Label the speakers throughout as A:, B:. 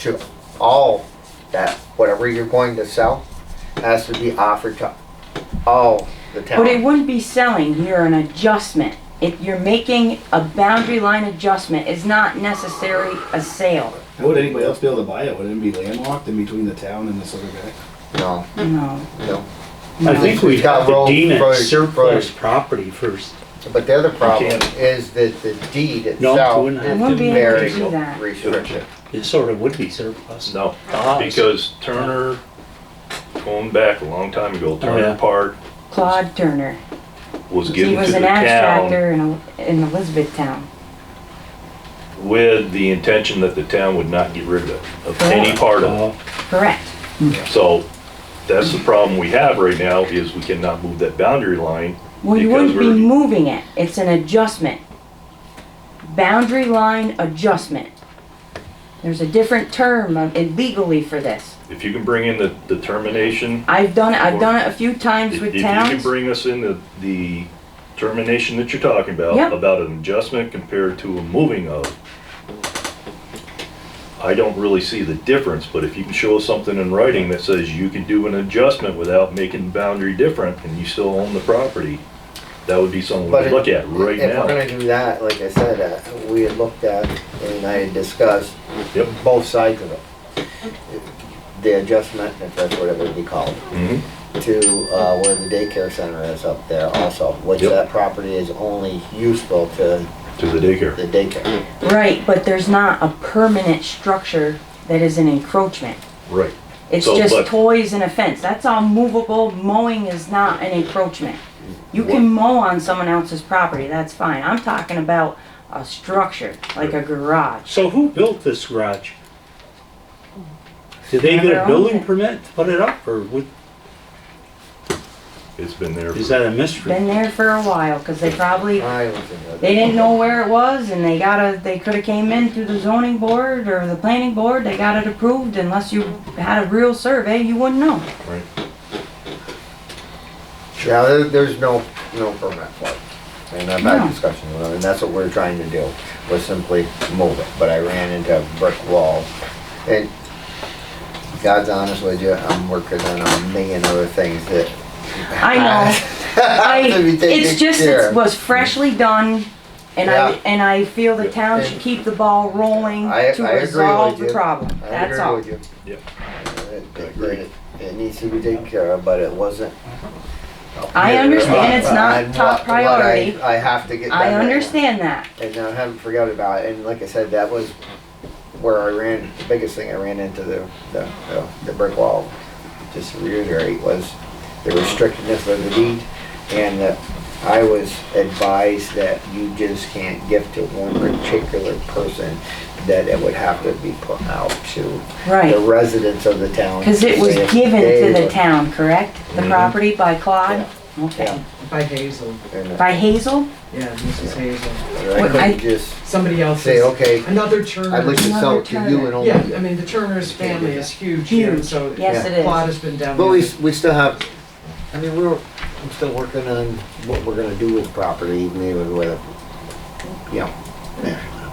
A: to all that whatever you're going to sell has to be offered to all the
B: But it
A: town.
B: wouldn't be selling, you're an adjustment. If you're making a boundary line adjustment, it's not necessarily a sale,
C: How would anybody else be able to buy it? Would it be landlocked in between the town and this other guy?
A: No,
B: no.
A: no.
D: I
B: no.
D: think we have to
A: Road,
D: deem
A: road,
D: it surplus property first.
A: But the other problem
D: can't.
A: is that the deed
D: No,
A: itself
D: we're
A: is
D: not.
B: I wouldn't be able to do
A: very
B: that.
A: restrictive.
D: It sort of would be surplus.
E: No,
D: To us.
E: because Turner, going back a long time ago,
D: yeah.
E: Turner Park
B: Claude Turner,
E: was
B: he
E: given to
B: was
E: the
B: an
E: town
B: abstractor in, El- in Elizabethtown.
E: with the intention that the town would not get rid of it, of any
B: Correct.
E: part of
D: Uh,
B: Correct,
E: it. So that's the problem we have right now, is we cannot move that boundary line.
B: well, you
E: Because
B: wouldn't be
E: we're-
B: moving it, it's an adjustment. Boundary line adjustment. There's a different term of- legally for this.
E: If you can bring in the determination,
B: I've done it, I've done it a few times
E: if if
B: with
E: you can
B: towns.
E: bring us in the, the termination that you're talking
B: Yep.
E: about, about an adjustment compared to a moving of, I don't really see the difference, but if you can show us something in writing that says you can do an adjustment without making the boundary different and you still own the property, that would be something
A: But
E: to
A: it-
E: look at right
A: If we're
E: now.
A: gonna do that, like I said, uh, we had looked at and I had discussed
E: Yep.
A: both sides of it. The adjustment, if that's what it would be called,
E: Mhm.
A: to uh, where the daycare center is up there also, which
E: Yep.
A: that property is only useful to
E: To the
A: the
E: daycare.
A: daycare.
B: Right, but there's not a permanent structure that is an encroachment.
E: Right.
B: It's
E: So,
B: just
E: but-
B: toys and a fence. That's all movable. Mowing is not an encroachment. You
E: What-
B: can mow on someone else's property, that's fine. I'm talking about a structure, like a garage.
D: So who built this garage? Did they
B: Whoever
D: get a
B: owned
D: building
B: it.
D: permit to put it up, or would-
E: It's been there.
D: is
E: for-
D: that a mystery?
B: Been there for a while, cause they probably,
A: I was in the-
B: they didn't know where it was and they got a, they could've came in through the zoning board or the planning board, they got it approved. Unless you had a real survey, you wouldn't know.
E: Right.
A: Yeah, there, there's no, no permit for it. And I've
B: No.
A: had discussions with them, and that's what we're trying to do, was simply move it, but I ran into a brick wall. And God's honest with you, I'm working on a million other things that.
B: I know. I, it's just, it was freshly done, and
A: Yeah.
B: I, and I feel the town should keep the ball rolling
A: I-
B: to
A: I agree
B: resolve
A: with
B: the
A: you.
B: problem,
A: I
B: that's
A: agree
B: all.
A: with you.
E: Yep.
A: It- It it needs to be taken care of, but it wasn't. up
B: I
A: here.
B: understand it's not
A: I'm
B: top
A: what- what I-
B: priority.
A: I have to get. done
B: I
A: right now.
B: understand that,
A: and I haven't forgot about it. And like I said, that was where I ran, the biggest thing I ran into the, the, the- the brick wall, just to reiterate, was the restrictiveness of the deed and that I was advised that you just can't give to one particular person, that it would have to be put out to the
B: right,
A: residents of the town.
B: cause it was
A: If
B: given
A: they
B: to the
A: were-
B: town, correct? The
E: Mhm.
B: property by Claude?
A: Mm-hmm. Yeah.
B: Okay,
F: By Hazel,
A: and
B: by Hazel?
F: yeah, Mrs. Hazel.
A: I
B: Well, I-
A: couldn't just
F: Somebody else
A: say,
F: is,
A: okay,
F: another Turner.
A: I'd like to sell it to you and only
F: Yeah,
A: you.
F: I mean, the Turner's family is huge
B: Huge.
F: here, so.
B: Yes,
A: Yeah.
B: it is.
F: Plot has been down
A: But
F: there.
A: we, we still have, I mean, we're, I'm still working on what we're gonna do with property, maybe with, a you know,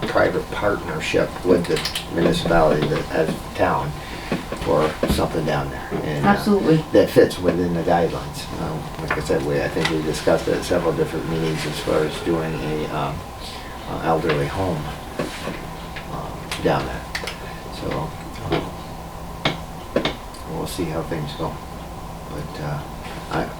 A: a private partnership with the municipality that, as town, for something down there. and, uh,
B: Absolutely.
A: That fits within the guidelines. Um, Like I said, we, I think we discussed it at several different meetings as far as doing a um, uh, elderly home um, down there. So, um, we'll see how things go. But uh, I,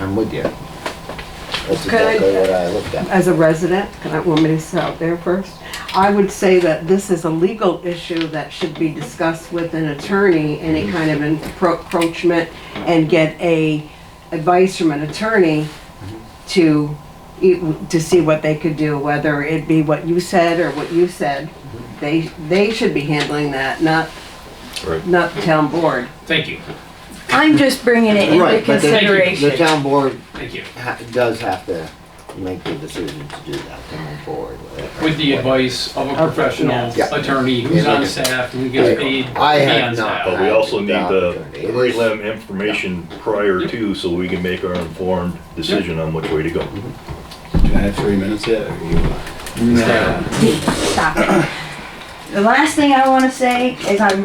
A: I'm with you. That's
G: Can I-
A: exactly what I looked at.
G: as a resident, and I want me to sit out there first, I would say that this is a legal issue that should be discussed with an attorney, any kind of encro- encroachment, and get a advice from an attorney to, e- to see what they could do, whether it be what you said or what you said. They, they should be handling that, not,
E: Right.
G: not the town board.
H: Thank you,
B: I'm just bringing it into
A: Right, but the-
B: consideration.
A: The town board
H: thank you.
A: ha- does have to make the decision to do that, to move forward with it.
H: With the advice of a professional
A: yeah.
H: attorney who's on staff and who gets paid to be
A: I have
H: on
A: not.
H: staff.
E: But we also need the
A: Opportunity.
E: prelim information prior to, so we can make our informed decision on which way to go.
C: Can I have three minutes yet? or you-
B: Stop it. The last thing I wanna say is I'm